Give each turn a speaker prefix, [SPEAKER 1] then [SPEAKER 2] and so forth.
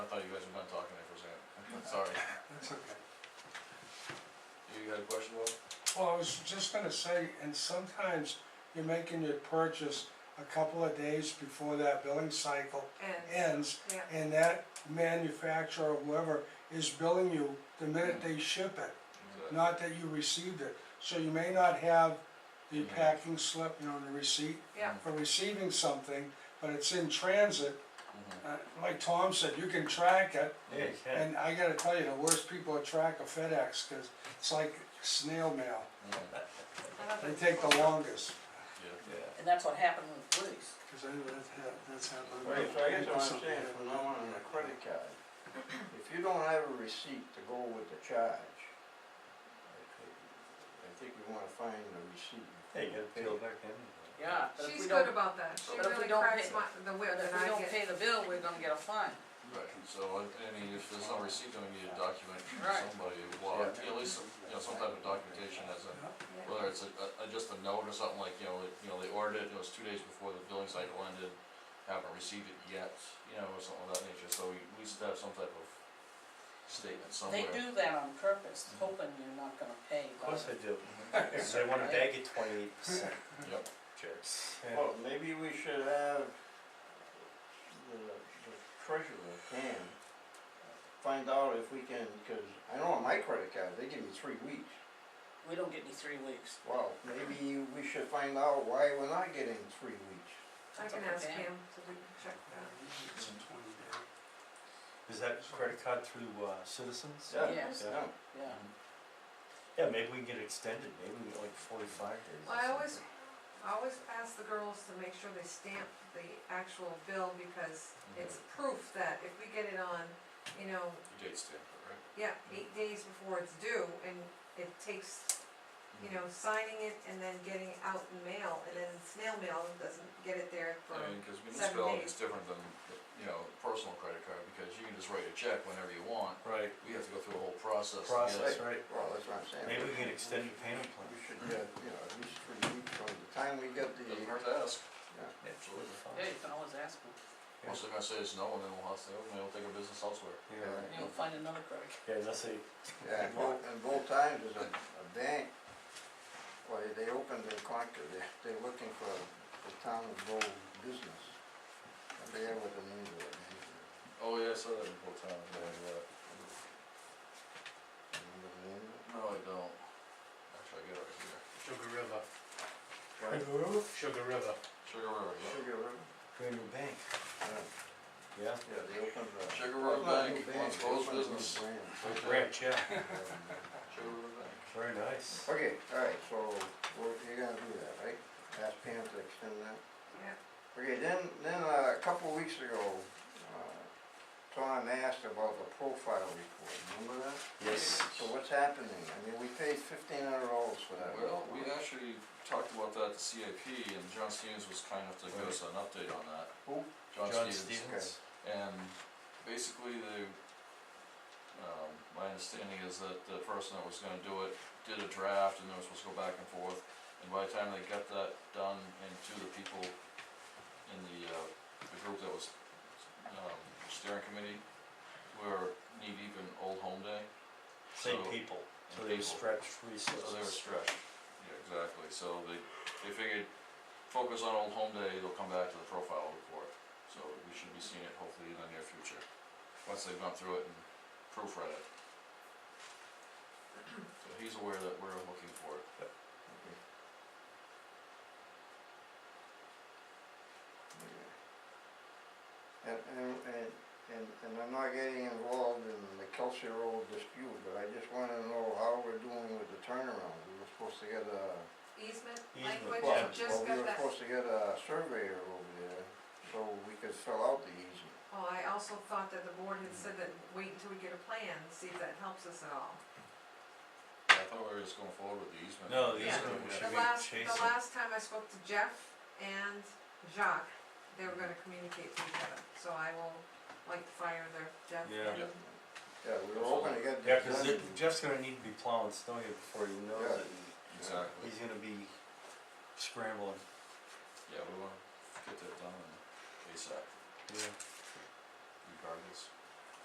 [SPEAKER 1] thought you guys were done talking there for a second, sorry.
[SPEAKER 2] That's okay.
[SPEAKER 1] You got a question, Bob?
[SPEAKER 2] Well, I was just gonna say, and sometimes you're making your purchase a couple of days before that billing cycle
[SPEAKER 3] and,
[SPEAKER 2] ends,
[SPEAKER 3] yeah,
[SPEAKER 2] and that manufacturer, or whoever, is billing you the minute they ship it,
[SPEAKER 4] Mm-hmm.
[SPEAKER 2] not that you received it. So you may not have the
[SPEAKER 1] Mhm.
[SPEAKER 2] packing slip, you know, the receipt
[SPEAKER 3] yeah,
[SPEAKER 2] for receiving something, but it's in transit.
[SPEAKER 1] Mhm.
[SPEAKER 2] Uh, Like Tom said, you can track it,
[SPEAKER 5] Yeah, you can.
[SPEAKER 2] And I gotta tell you, the worst people to track are FedEx, cause it's like snail mail,
[SPEAKER 4] Mm-hmm.
[SPEAKER 1] Mhm.
[SPEAKER 3] I love
[SPEAKER 2] they
[SPEAKER 3] it.
[SPEAKER 2] take the longest,
[SPEAKER 1] Yeah.
[SPEAKER 5] Yeah.
[SPEAKER 6] And that's what happened with Woody's.
[SPEAKER 2] cause I, that's, hap- that's happened.
[SPEAKER 5] Right, so I guess what I'm saying, from now on, on a credit card, if you don't have a receipt to go with the charge, I think we wanna find a receipt.
[SPEAKER 4] Hey, you gotta peel back in.
[SPEAKER 6] Yeah, but if
[SPEAKER 3] She's
[SPEAKER 6] we
[SPEAKER 3] good
[SPEAKER 6] don't,
[SPEAKER 3] about that, she
[SPEAKER 6] but if we
[SPEAKER 3] really
[SPEAKER 6] don't
[SPEAKER 3] cracks
[SPEAKER 6] pay-
[SPEAKER 3] my, the
[SPEAKER 6] but
[SPEAKER 3] whip
[SPEAKER 6] if
[SPEAKER 3] that
[SPEAKER 6] we
[SPEAKER 3] I
[SPEAKER 6] don't
[SPEAKER 3] get,
[SPEAKER 6] pay the bill, we're gonna get a fine.
[SPEAKER 1] Right, so, I I mean, if there's no receipt, then we need a document from
[SPEAKER 6] Right.
[SPEAKER 1] somebody, well, at least, some- you know, some type of documentation as a,
[SPEAKER 3] yeah,
[SPEAKER 1] whether it's a, a, just a note or something like, you know, like, you know, they ordered it, it was two days before the billing cycle ended, haven't received it yet, you know, or something of that nature, so we, we should have some type of statement
[SPEAKER 6] They
[SPEAKER 1] somewhere.
[SPEAKER 6] do that on purpose, hoping you're not gonna pay,
[SPEAKER 4] Of
[SPEAKER 6] but
[SPEAKER 4] course I do. If they wanna bag it twenty-eight percent.
[SPEAKER 1] Yep.
[SPEAKER 4] Jerks.
[SPEAKER 5] Well, maybe we should have the the treasurer, Pam, find out if we can, cause I know on my credit card, they give me three weeks.
[SPEAKER 6] we don't get any three weeks.
[SPEAKER 5] Well, maybe we should find out why we're not getting three weeks.
[SPEAKER 3] I
[SPEAKER 6] That's
[SPEAKER 3] can
[SPEAKER 6] up to
[SPEAKER 3] ask
[SPEAKER 6] them.
[SPEAKER 3] him to re- check that.
[SPEAKER 4] Is that credit card through, uh, Citizens?
[SPEAKER 5] Yeah,
[SPEAKER 6] Yes.
[SPEAKER 5] yeah.
[SPEAKER 6] Yeah,
[SPEAKER 4] Yeah, maybe we can get extended, maybe we get like forty-five days. or
[SPEAKER 3] Well, I
[SPEAKER 4] something.
[SPEAKER 3] always, I always ask the girls to make sure they stamp the actual bill because
[SPEAKER 6] Mm-hmm.
[SPEAKER 3] it's proof that if we get it on, you know,
[SPEAKER 1] You date stamp it, right?
[SPEAKER 3] yeah, eight days before it's due and it takes you
[SPEAKER 6] Mm-hmm.
[SPEAKER 3] know, signing it and then getting it out in mail, and then snail mail doesn't get it there for,
[SPEAKER 1] I mean, cause
[SPEAKER 3] seven
[SPEAKER 1] municipality
[SPEAKER 3] days.
[SPEAKER 1] is different than, you know, personal credit card, because you can just write a check whenever you want,
[SPEAKER 4] Right,
[SPEAKER 1] we have to go through a whole process. to get
[SPEAKER 4] process, right,
[SPEAKER 5] Well, that's what I'm saying.
[SPEAKER 4] maybe we can extend the payment plan.
[SPEAKER 5] We should get, you know, at least three weeks from the time we get the,
[SPEAKER 1] it. Doesn't hurt to ask,
[SPEAKER 5] yeah,
[SPEAKER 4] Absolutely.
[SPEAKER 6] yeah, you can always ask them,
[SPEAKER 1] once they're gonna say it's no, and then we'll have to, we'll take our business elsewhere.
[SPEAKER 4] Yeah, right.
[SPEAKER 6] you know, find another credit card.
[SPEAKER 4] yeah, unless they,
[SPEAKER 5] yeah, and both, and both times is a, a bank, well, they open their account, they, they're looking for the town of Bow business. I forget what the name of it is,
[SPEAKER 1] Oh, yeah, I saw that in Port Town, yeah, yeah.
[SPEAKER 5] remember the name of it?
[SPEAKER 1] No, I don't. Actually, I get it right here.
[SPEAKER 7] Sugar River,
[SPEAKER 5] Right,
[SPEAKER 7] Sugar River.
[SPEAKER 1] Sugar River, yeah.
[SPEAKER 5] Sugar River,
[SPEAKER 4] Green Bank,
[SPEAKER 5] yeah,
[SPEAKER 4] yeah.
[SPEAKER 5] yeah, they opened the.
[SPEAKER 1] Sugar River
[SPEAKER 5] Not
[SPEAKER 1] Bank,
[SPEAKER 5] new
[SPEAKER 1] once
[SPEAKER 5] they
[SPEAKER 1] closed
[SPEAKER 5] opened a new
[SPEAKER 1] business.
[SPEAKER 5] branch.
[SPEAKER 1] Right there.
[SPEAKER 4] Branch, yeah,
[SPEAKER 5] Um,
[SPEAKER 1] Sugar River Bank.
[SPEAKER 4] very nice.
[SPEAKER 5] Okay, alright, so, we're, you're gonna do that, right? Ask Pam to extend that?
[SPEAKER 3] yeah.
[SPEAKER 5] Okay, then, then uh, a couple of weeks ago, uh, Tom asked about the profile report, remember that?
[SPEAKER 4] Yes.
[SPEAKER 5] So what's happening? I mean, we paid fifteen hundred dollars for that.
[SPEAKER 1] Well, we actually talked about that at the CIP, and John Stevens was kind enough to give us an update on that.
[SPEAKER 5] Who?
[SPEAKER 4] John Stevens,
[SPEAKER 1] And basically, the, um, my understanding is that the person that was gonna do it did a draft and they were supposed to go back and forth. And by the time they got that done and to the people in the, uh, the group that was, um, steering committee, we were knee deep in Old Home Day.
[SPEAKER 4] same
[SPEAKER 1] So-
[SPEAKER 4] people, so
[SPEAKER 1] and
[SPEAKER 4] they
[SPEAKER 1] people.
[SPEAKER 4] stretch
[SPEAKER 1] So they were
[SPEAKER 4] resources.
[SPEAKER 1] stretched, yeah, exactly, so they, they figured, focus on Old Home Day, they'll come back to the profile report. So we should be seeing it hopefully in the near future, once they've gone through it and proofread it. So he's aware that we're looking for it.
[SPEAKER 5] And, and, and, and and I'm not getting involved in the Kelsey Road dispute, but I just wanna know how we're doing with the turnaround. We were supposed to get a,
[SPEAKER 3] Easement
[SPEAKER 4] Easement,
[SPEAKER 3] language,
[SPEAKER 5] well,
[SPEAKER 4] yeah.
[SPEAKER 3] you
[SPEAKER 5] well,
[SPEAKER 3] just
[SPEAKER 5] we
[SPEAKER 3] got
[SPEAKER 5] were
[SPEAKER 3] that,
[SPEAKER 5] supposed to get a surveyor over there, so we could fill out the easement.
[SPEAKER 3] well, Oh, I also thought that the board had said that wait until we get a plan, see if that helps us at all.
[SPEAKER 1] Yeah, I thought we were just going forward with the easement.
[SPEAKER 4] No, the
[SPEAKER 3] Yeah.
[SPEAKER 4] easement,
[SPEAKER 1] Yeah.
[SPEAKER 4] we should
[SPEAKER 3] The
[SPEAKER 4] be
[SPEAKER 3] last,
[SPEAKER 4] chasing.
[SPEAKER 3] the last time I spoke to Jeff and Jacques, they were gonna communicate to each other, so I will light the fire there, Jeff
[SPEAKER 4] Yeah.
[SPEAKER 3] and
[SPEAKER 5] Yeah, we were hoping to get
[SPEAKER 4] Oh, Yeah,
[SPEAKER 5] this
[SPEAKER 4] cause
[SPEAKER 5] done.
[SPEAKER 4] it- Jeff's gonna need to be plowing snow here before he knows
[SPEAKER 5] Yeah.
[SPEAKER 4] it,
[SPEAKER 1] Exactly,
[SPEAKER 4] he's gonna be scrambling,
[SPEAKER 1] yeah, we wanna get that done and ASAP,
[SPEAKER 4] yeah.
[SPEAKER 1] regardless.